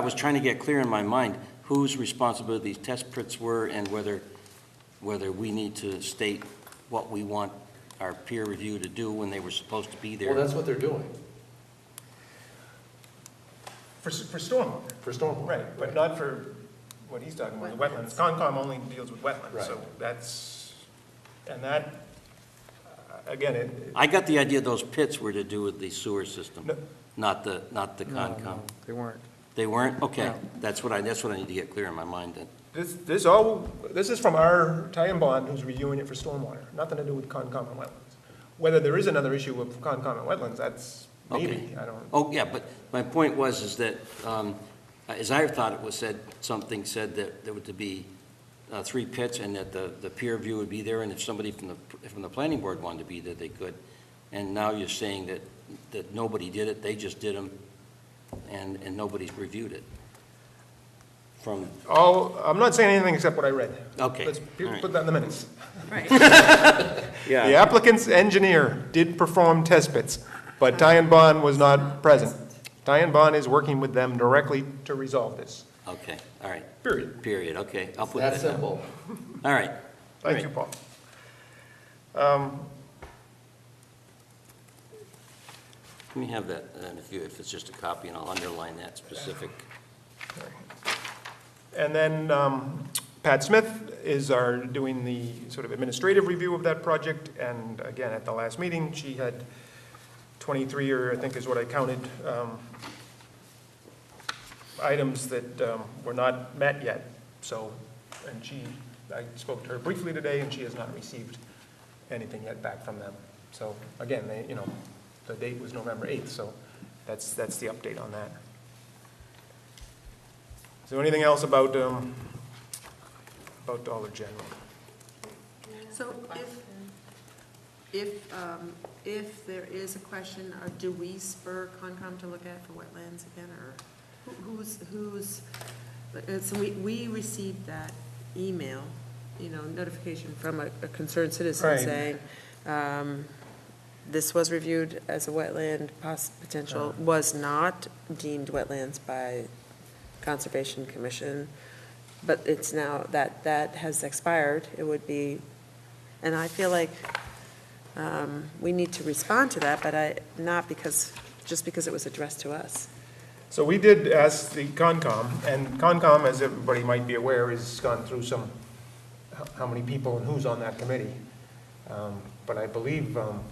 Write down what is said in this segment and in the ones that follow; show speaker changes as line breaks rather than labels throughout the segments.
I was trying to get clear in my mind whose responsibility these test pits were and whether, whether we need to state what we want our peer review to do when they were supposed to be
Well,
there.
that's what they're doing
For, s- for stormwater,
for stormwater.
right, but not for what he's talking about, the wetlands. Concom only deals with wetlands, so that's, and that, uh, again, it,
I got the idea those pits were to do with the sewer system,
No.
not the, not the
No,
Concom.
no, They weren't.
They weren't? Okay,
No.
that's what I, that's what I need to get clear in my mind then.
this, this all, this is from our tie and bond who's reviewing it for stormwater, nothing to do with Concom and wetlands. Whether there is another issue with Concom and wetlands, that's maybe,
Okay.
I don't,
Oh, yeah, but my point was is that, um, as I thought it was said, something said that there were to be uh, three pits and that the, the peer review would be there, and if somebody from the, from the planning board wanted to be there, they could. And now you're saying that, that nobody did it, they just did them, and, and nobody's reviewed it. From,
all, I'm not saying anything except what I read.
Okay,
Let's pu-
all right.
put that in the minutes.
Right,
The applicant's engineer did perform test pits, but Ty and Bond was not present. Ty and Bond is working with them directly to resolve this,
okay, all right,
period.
period, okay, I'll put
That
that down.
simple.
All right,
Thank you, Paul.
let me have that, and if you, if it's just a copy, and I'll underline that specific.
And then um, Pat Smith is our, doing the sort of administrative review of that project, and again, at the last meeting, she had 23, or I think is what I counted, um, items that um, were not met yet, so, and she, I spoke to her briefly today, and she has not received anything yet back from them. So again, they, you know, the date was November 8th, so that's, that's the update on that. Is there anything else about, um, about Dollar General?
so if, if, um, if there is a question, uh, do we spur Concom to look at for wetlands again, or who- who's, who's, uh, so we, we received that email, you know, notification from a a concerned citizen
Right.
saying, um, this was reviewed as a wetland, poss, potential, was not deemed wetlands by Conservation Commission, but it's now, that, that has expired, it would be, and I feel like um, we need to respond to that, but I, not because, just because it was addressed to us.
So we did ask the Concom, and Concom, as everybody might be aware, has gone through some, how- how many people and who's on that committee. Um, But I believe, um,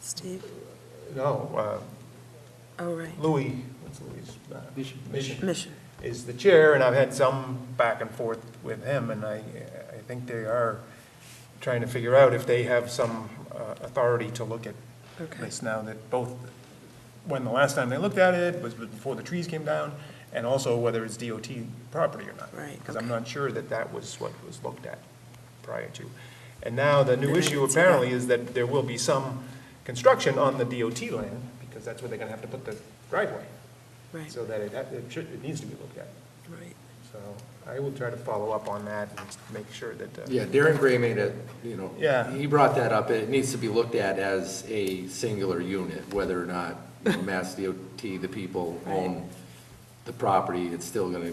Steve?
no, uh,
Oh, right,
Louis, what's Louis? Mission. Mission
mission.
is the chair, and I've had some back and forth with him, and I, I think they are trying to figure out if they have some uh, authority to look at
Okay,
place now that both, when the last time they looked at it was before the trees came down, and also whether it's DOT property or not.
Right,
Because I'm
okay.
not sure that that was what was looked at prior to. And now the
Then
new
I
issue
didn't see that.
apparently is that there will be some construction on the DOT land, because that's where they're gonna have to put the driveway,
right,
so that it, ha- it should, it needs to be looked at.
right.
So I will try to follow up on that and make sure that, uh,
Yeah, Darren Gray made it, you know.
Yeah.
He brought that up, it needs to be looked at as a singular unit, whether or not you know, Mass DOT, the people own the property, it's still gonna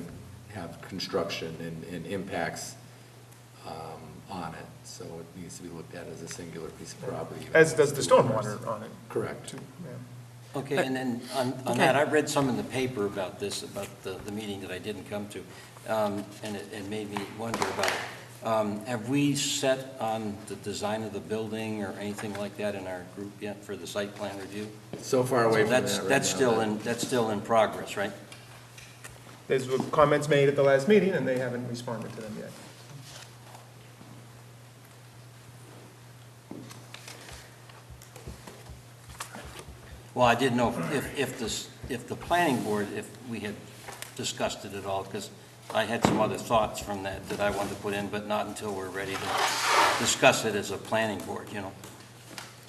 have construction and, and impacts, um, on it, so it needs to be looked at as a singular piece of property.
as does the stormwater on it,
Correct.
too, yeah.
Okay, and then on, on that, I read some in the paper about this, about the, the meeting that I didn't come to, um, and it, it made me wonder about it. Um, have we set on the design of the building or anything like that in our group yet for the site plan review?
So far away
So
from that
that's,
right
that's
now
still
that-
in, that's still in progress, right?
There's comments made at the last meeting, and they haven't responded to them yet.
Well, I didn't know if, if this, if the planning board, if we had discussed it at all, because I had some other thoughts from that that I wanted to put in, but not until we're ready to discuss it as a planning board, you know?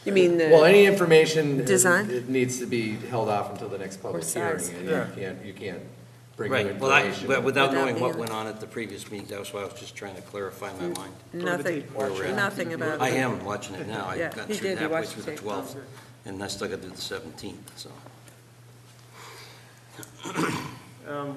You mean uh,
Well,
the,
any information.
Design?
It needs to be held off until the next public
Or
hearing.
size.
and You can't, you can't bring new
Right, well, I,
information.
but without
Without
knowing
being
what
on-
went on at the previous meeting, that's why I was just trying to clarify
Mm-hmm.
my mind.
nothing,
Where we're at.
nothing about.
I am watching it now, I
Yeah,
got
he
through
did. He
halfway
watched
through the
it.
12th, and I still got to do the 17th, so.
Um,